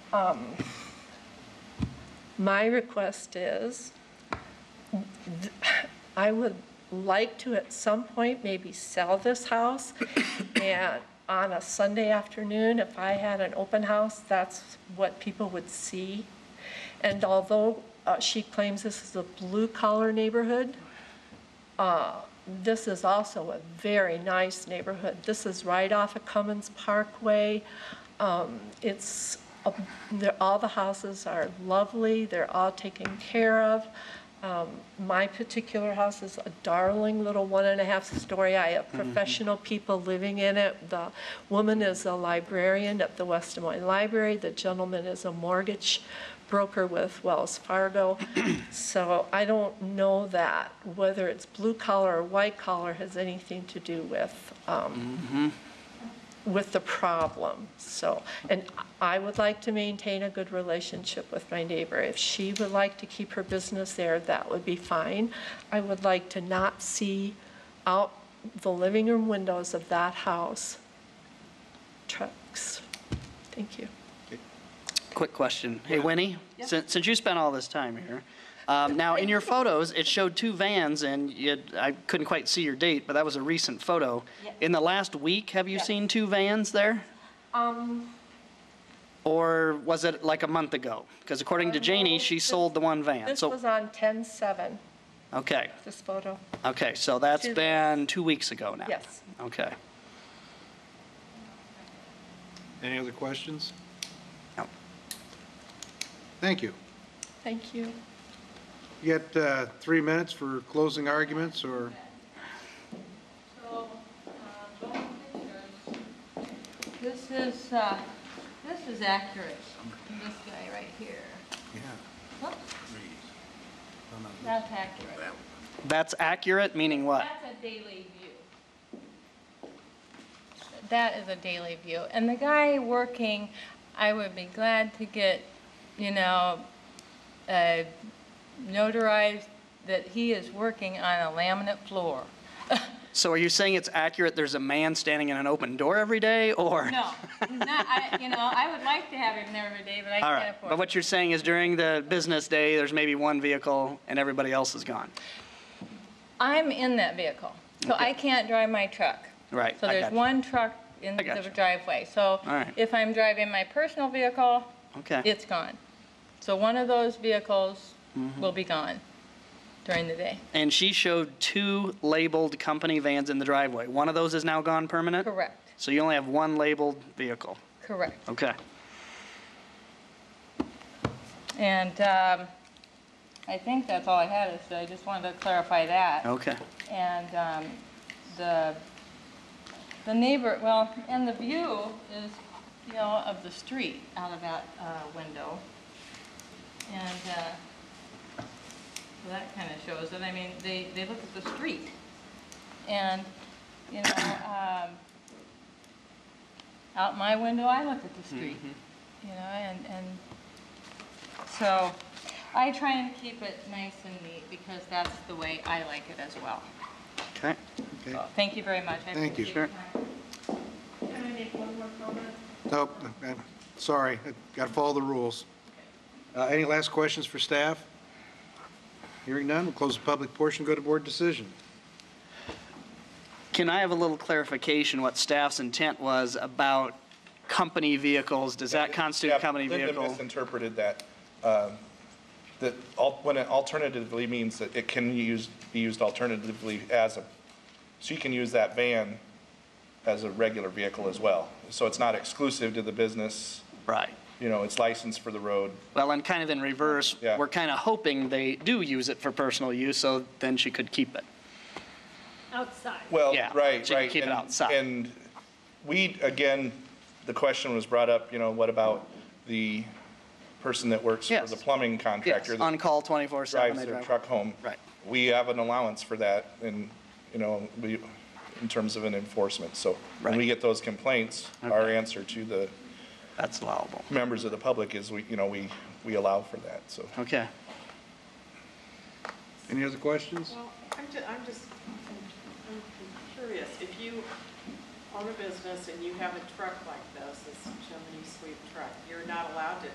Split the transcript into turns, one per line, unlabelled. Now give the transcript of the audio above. um, my request is, th- I would like to at some point maybe sell this house, and on a Sunday afternoon, if I had an open house, that's what people would see. And although uh, she claims this is a blue-collar neighborhood, uh, this is also a very nice neighborhood. This is right off of Cummins Parkway. Um, It's, a- they're- all the houses are lovely, they're all taken care of. Um, My particular house is a darling little one and a half story. I have professional people living in it. The woman is a librarian at the West Des Moines Library, the gentleman is a mortgage broker with Wells Fargo. So I don't know that, whether it's blue collar or white collar has anything to do with, um, with the problem. So, and I would like to maintain a good relationship with my neighbor. If she would like to keep her business there, that would be fine. I would like to not see out the living room windows of that house trucks. Thank you.
Quick question. Hey, Winnie, since, since you spent all this time here, um, now in your photos, it showed two vans and you, had- I couldn't quite see your date, but that was a recent photo.
Yeah.
In the last week, have you
Yes.
seen two vans there?
Um,
Or was it like a month ago? Because according to Janie, she sold the one van.
Uh, this
So,
was on 10/7,
okay,
this photo.
okay, so that's
Two
been two weeks ago now?
Yes.
Okay.
Any other questions?
No.
Thank you.
Thank you.
You got uh, three minutes for closing arguments, or
So, uh, going pictures. This is, uh, this is accurate, this guy right here.
yeah,
Whoops, That's accurate.
That's accurate, meaning what?
Uh,
That's a daily view. That is a daily view. And the guy working, I would be glad to get, you know, uh, notarized that he is working on a laminate floor.
So are you saying it's accurate, there's a man standing in an open door every day, or?
No, he's not, I, you know, I would like to have him there every day, but I
All
can't
right,
afford it.
but what you're saying is during the business day, there's maybe one vehicle and everybody else is gone.
I'm in that vehicle, so I can't drive my truck.
Right,
So
I
there's
gotcha.
one truck in
I gotcha.
the driveway. So
right.
if I'm driving my personal vehicle,
Okay,
it's gone. So one of those vehicles
Mm-hmm.
will be gone during the day.
and she showed two labeled company vans in the driveway. One of those is now gone permanent?
Correct,
So you only have one labeled vehicle,
correct.
okay.
And um, I think that's all I had, is I just wanted to clarify that.
Okay,
And um, the, the neighbor, well, and the view is, you know, of the street out of that uh, window. And uh, so that kind of shows it. I mean, they, they look at the street. And, you know, um, out my window, I look at the street, you know, and, and so I try and keep it nice and neat because that's the way I like it as well.
okay.
okay,
Thank you very much. I
Thank you.
appreciate
Sure.
your time.
Can I make one more comment?
nope, I'm Oh, uh, sorry, got to follow the rules. Uh, Any last questions for staff? Hearing none, we'll close the public portion, go to board decision.
Can I have a little clarification what staff's intent was about company vehicles? Does that constitute
Yeah,
a company
Linda
vehicle?
misinterpreted that, um, that al- when it alternatively means that it can use, be used alternatively as a, so you can use that van as a regular vehicle as well. So it's not exclusive to the business,
Right.
you know, it's licensed for the road.
Well, and kind of in reverse,
Yeah.
we're kind of hoping they do use it for personal use, so then she could keep it.
outside.
Well,
Yeah,
right, right.
so you keep it
and-
outside.
And we, again, the question was brought up, you know, what about the person that works for
Yes.
the plumbing
Yes,
contractor? that-
on call 24/7.
drives
they
their
drive-
truck home.
Right.
We have an allowance for that in, you know, we, in terms of an enforcement. So when we
Right.
get those complaints, our
Okay.
answer to the
That's allowable.
members of the public is we, you know, we, we allow for that, so.
Okay.
Any other questions?
Well, I'm just, I'm just I'm curious, if you own a business and you have a truck like this, this chimney sweep truck, you're not allowed to